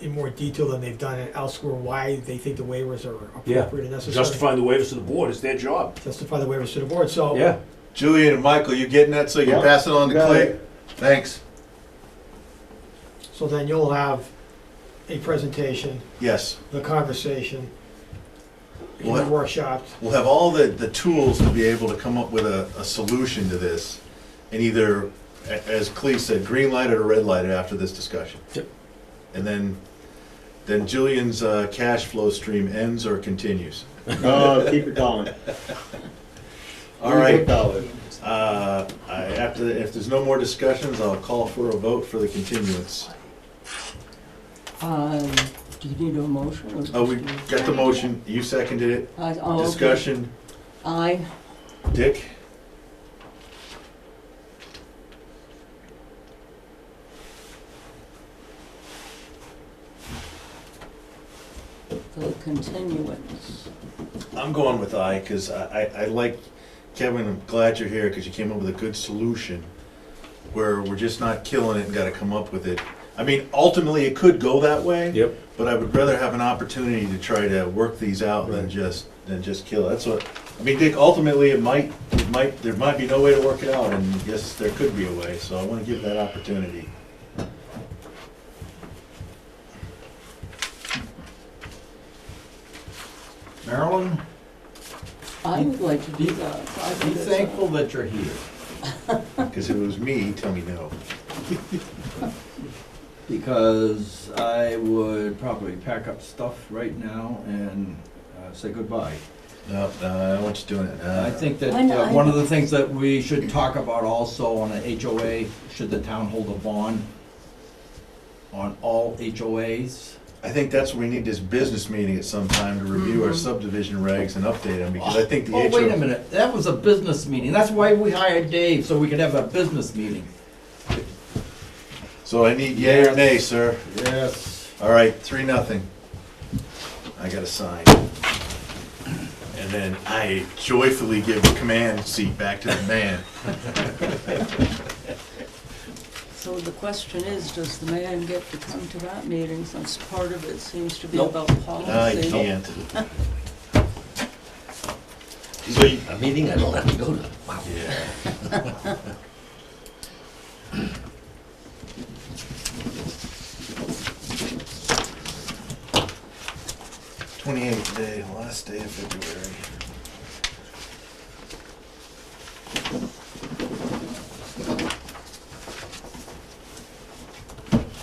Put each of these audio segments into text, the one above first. in more detail than they've done it elsewhere, why they think the waivers are Yeah. appropriate and necessary. Justifying the waivers to the board is their job. Justify the waivers to the board, so. Yeah. Julian and Michael, you getting that so you Yeah. can pass it on to Got Clay? Thanks. So then you'll have a presentation, Yes, the conversation, and the What? workshop. we'll have all the, the tools to be able to come up with a, a solution to this and either, a- as Clay said, green light it or red light it after this discussion. Yep. And then, then Julian's uh, cash flow stream ends or continues. No, Uh, keep it going. All right, Keep it going. uh, I, after, if there's no more discussions, I'll call for a vote for the continuance. Um, do you need a motion? or Oh, we just- got the motion, you seconded it, I- oh, okay. discussion, Aye, Dick? for continuance. I'm going with I, because I, I, I like, Kevin, I'm glad you're here, because you came up with a good solution, where we're just not killing it and gotta come up with it. I mean, ultimately, it could go that way, Yep. but I would rather have an opportunity to try to work these out than Right. just, than just kill it, that's what, I mean, Dick, ultimately, it might, it might, there might be no way to work it out, and yes, there could be a way, so I wanna give that opportunity. Marilyn, I would like to do that. I be think it's a- thankful that you're here. Because if it was me, he'd tell me no. because I would probably pack up stuff right now and uh, say goodbye. No, no, I want you doing it. And I think that I know, uh, I one of know. the things that we should talk about also on an HOA, should the town hold a bond on all HOAs? I think that's what we need this business meeting at some time to review our Mhm. subdivision regs and update them, because I think the Oh, Mm-hmm. wait a HO. minute, that was a business meeting, that's why we hired Dave, so we could have a business meeting. So I need yay or nay, sir. Yes. All right, three, nothing. I gotta sign. And then I joyfully give the command seat back to the man. So the question is, does the man get to come to that meeting since part of it seems to be Nope. about I policy? can't. So you, a meeting I don't have to go to. Wow. yeah. Twenty-eighth day, last day of February.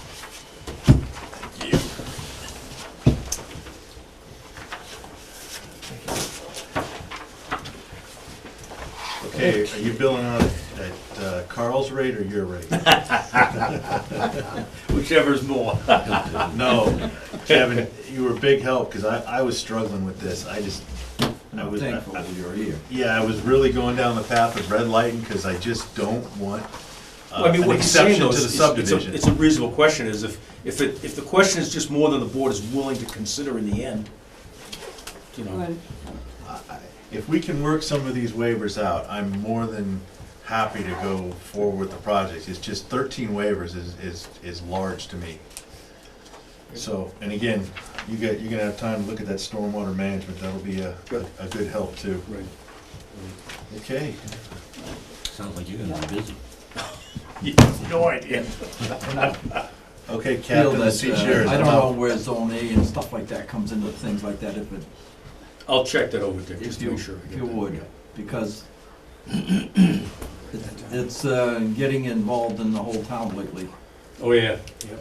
Thank you. Okay, are you billing on it at uh, Carl's rate or your rate? Whichever's more. No, Kevin, you were a big help, because I, I was struggling with this, I just, I I'm was, I- thankful I- that you're here. yeah, I was really going down the path of red lighting, because I just don't want Well, I uh, mean, an what he's saying exception though is, to the is- it's a, subdivision. it's a reasonable question, is if, if it, if the question is just more than the board is willing to consider in the end, you know, Right. Uh, If we can work some of these waivers out, I'm more than happy to go forward with the project, it's just thirteen waivers is, is, is large to me. So, and again, you got, you're gonna have time to look at that stormwater management, that'll be a, a a good help too. Right. Okay. Sounds like you're gonna be busy. no idea. Okay, Feel Captain, the seat's that, yours. uh, I I'm don't know out. where zone A and stuff like that comes into things like that, if it I'll check that over, Dick, If just to you- make sure. I if get you that. would. because it's- it's uh, getting involved in the whole town lately. Oh, yeah, yeah.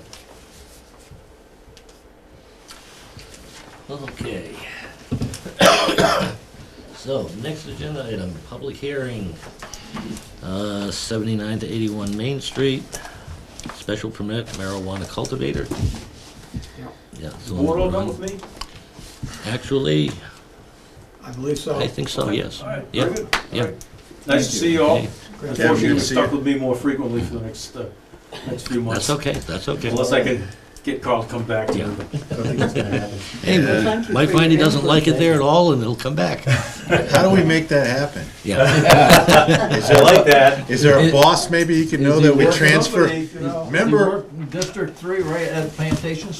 Okay. So, next agenda item, public hearing, uh, seventy-nine to eighty-one Main Street, special permit marijuana cultivator. Yeah. Yeah. Is so the board all done with me? Actually, I believe so. I think so, Oh, yes. All right, Yeah, very good. yeah. Nice to see you all. Okay. Great. Yeah, Unfortunately, good you're to see you. stuck with me more frequently for the next, uh, next few months. That's okay, that's okay. Unless I can get Carl to come back to Yeah. you. Hey, Yeah. might find he doesn't like it there at all and it'll come back. How do we make that happen? Yeah, Is I there like that. Is there a It- boss maybe you can know that would transfer? You know, Remember- you work in District Three, right at Plantation